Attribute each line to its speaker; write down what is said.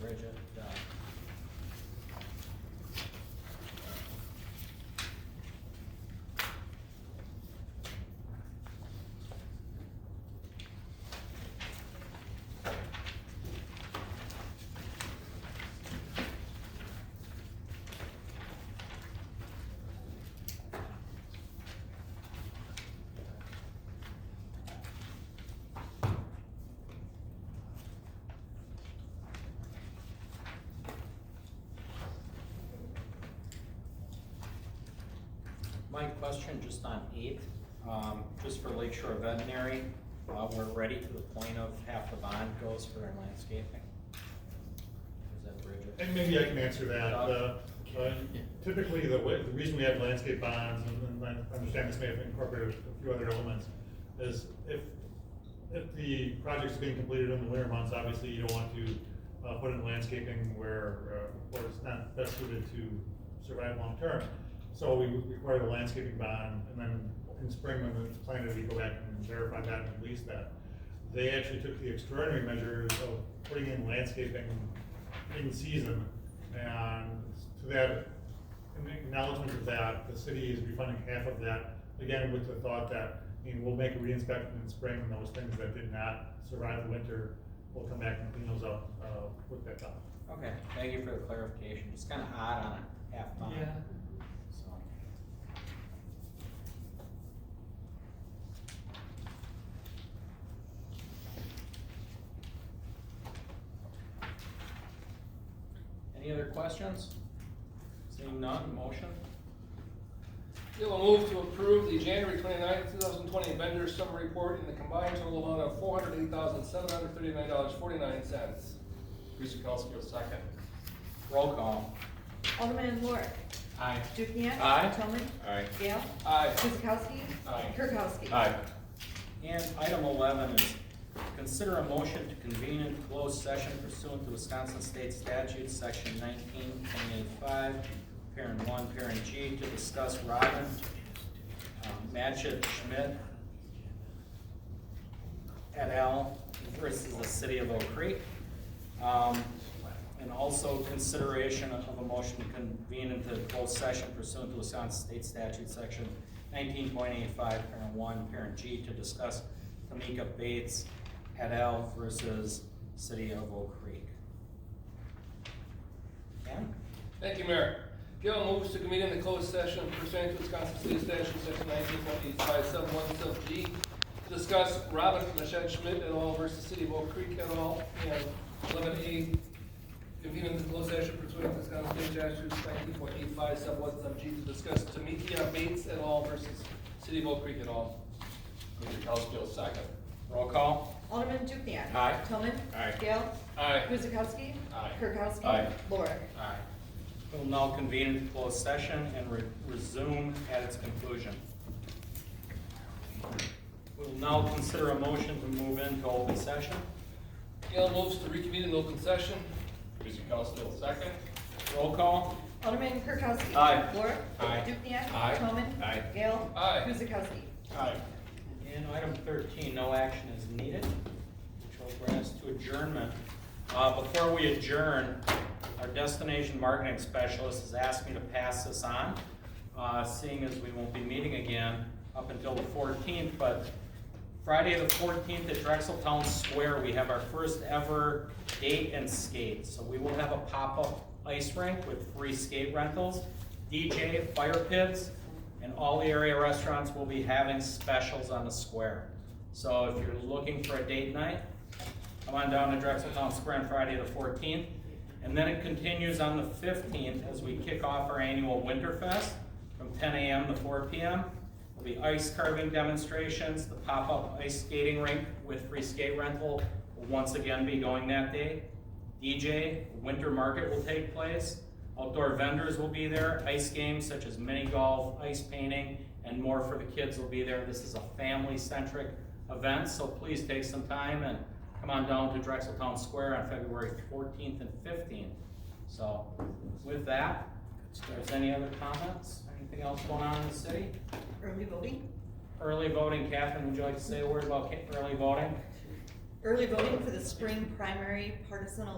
Speaker 1: budget, uh, My question just on eight, um, just for Lake Shore Veterinary, uh, we're ready to the point of half the bond goes for our landscaping. Is that Bridget?
Speaker 2: And maybe I can answer that.
Speaker 1: Doug?
Speaker 2: Uh, uh, Typically, the way, the reason we have landscape bonds, and and I understand this may have incorporated a few other elements, is if, if the project's being completed in the winter months, obviously you don't want to uh, put in landscaping where, uh, where it's not best suited to survive long-term. So we require the landscaping bond, and then in spring, when it's planted, we go back and verify that and release that. They actually took the extraordinary measure of putting in landscaping in season. And to that, in acknowledgement of that, the city is refunding half of that, again, with the thought that, I mean, we'll make a reinspection in spring and those things that did not survive the winter, we'll come back and clean those up, uh, with that dollar.
Speaker 1: Okay, thank you for the clarification, it's kinda odd on a half bond.
Speaker 3: Yeah.
Speaker 1: So, Any other questions? Seeing none, motion?
Speaker 3: Bill will move to approve the January 29, thousand twenty vendor summary report in the combined total amount of four hundred eight thousand, seven hundred thirty-nine dollars, forty-nine cents. Bruce Kukowski will second.
Speaker 1: Roll call.
Speaker 4: Alderman Lorik.
Speaker 1: Aye.
Speaker 4: Dukenyak.
Speaker 1: Aye.
Speaker 4: Toman.
Speaker 5: Aye.
Speaker 4: Gale.
Speaker 3: Aye.
Speaker 4: Guzekowski.
Speaker 3: Aye.
Speaker 4: Kirkowski.
Speaker 1: And item eleven is consider a motion to convene in closed session pursuant to Wisconsin State Statute, section nineteen point eight five, parent one, parent G, to discuss Robin, um, Matchett Schmidt et al. versus the city of Oak Creek. Um, and also consideration of a motion to convene into closed session pursuant to Wisconsin State Statute, section nineteen point eight five, parent one, parent G, to discuss Tamika Bates et al. versus city of Oak Creek. Pam?
Speaker 3: Thank you, Mayor. Gail moves to convene in the closed session pursuant to Wisconsin State Statute, section nineteen point eight five seven one sub G, to discuss Robin Machette Schmidt et al. versus City of Oak Creek et al. and eleven A, convene in the closed session pursuant to Wisconsin State Statute, nineteen point eight five sub one sub G, to discuss Tamika Bates et al. versus City of Oak Creek et al. Kuzakowski will second.
Speaker 1: Roll call?
Speaker 4: Alderman Dukenyak.
Speaker 1: Aye.
Speaker 4: Toman.
Speaker 5: Aye.
Speaker 4: Gale.
Speaker 3: Aye.
Speaker 4: Guzekowski.
Speaker 3: Aye.
Speaker 4: Kirkowski.
Speaker 1: Aye.
Speaker 4: Lorik.
Speaker 1: Aye. We'll now convene into closed session and re- resume at its conclusion. We'll now consider a motion to move into open session.
Speaker 3: Gail moves to reconvene in open session. Kuzakowski will second.
Speaker 1: Roll call?
Speaker 4: Alderman Kirkowski.
Speaker 1: Aye.
Speaker 4: Lorik.
Speaker 1: Aye.
Speaker 4: Dukenyak.
Speaker 3: Aye.
Speaker 4: Toman.
Speaker 5: Aye.
Speaker 4: Gale.
Speaker 3: Aye.
Speaker 4: Guzekowski.
Speaker 3: Aye.
Speaker 1: And item thirteen, no action is needed, which will bring us to adjournment. Uh, before we adjourn, our destination marketing specialist has asked me to pass this on, uh, seeing as we won't be meeting again up until the fourteenth, but Friday the fourteenth at Drexel Town Square, we have our first ever date and skate. So we will have a pop-up ice rink with free skate rentals, DJ, fire pits, and all the area restaurants will be having specials on the square. So if you're looking for a date night, come on down to Drexel Town Square on Friday the fourteenth. And then it continues on the fifteenth as we kick off our annual Winterfest from ten AM to four PM. There'll be ice carving demonstrations, the pop-up ice skating rink with free skate rental will once again be going that day. DJ, winter market will take place. Outdoor vendors will be there, ice games such as mini golf, ice painting, and more for the kids will be there. This is a family-centric event, so please take some time and come on down to Drexel Town Square on February fourteenth and fifteenth. So with that, if there's any other comments, anything else going on in the city?
Speaker 4: Early voting.
Speaker 1: Early voting, Catherine, would you like to say a word about ca- early voting?
Speaker 4: Early voting for the spring primary partisan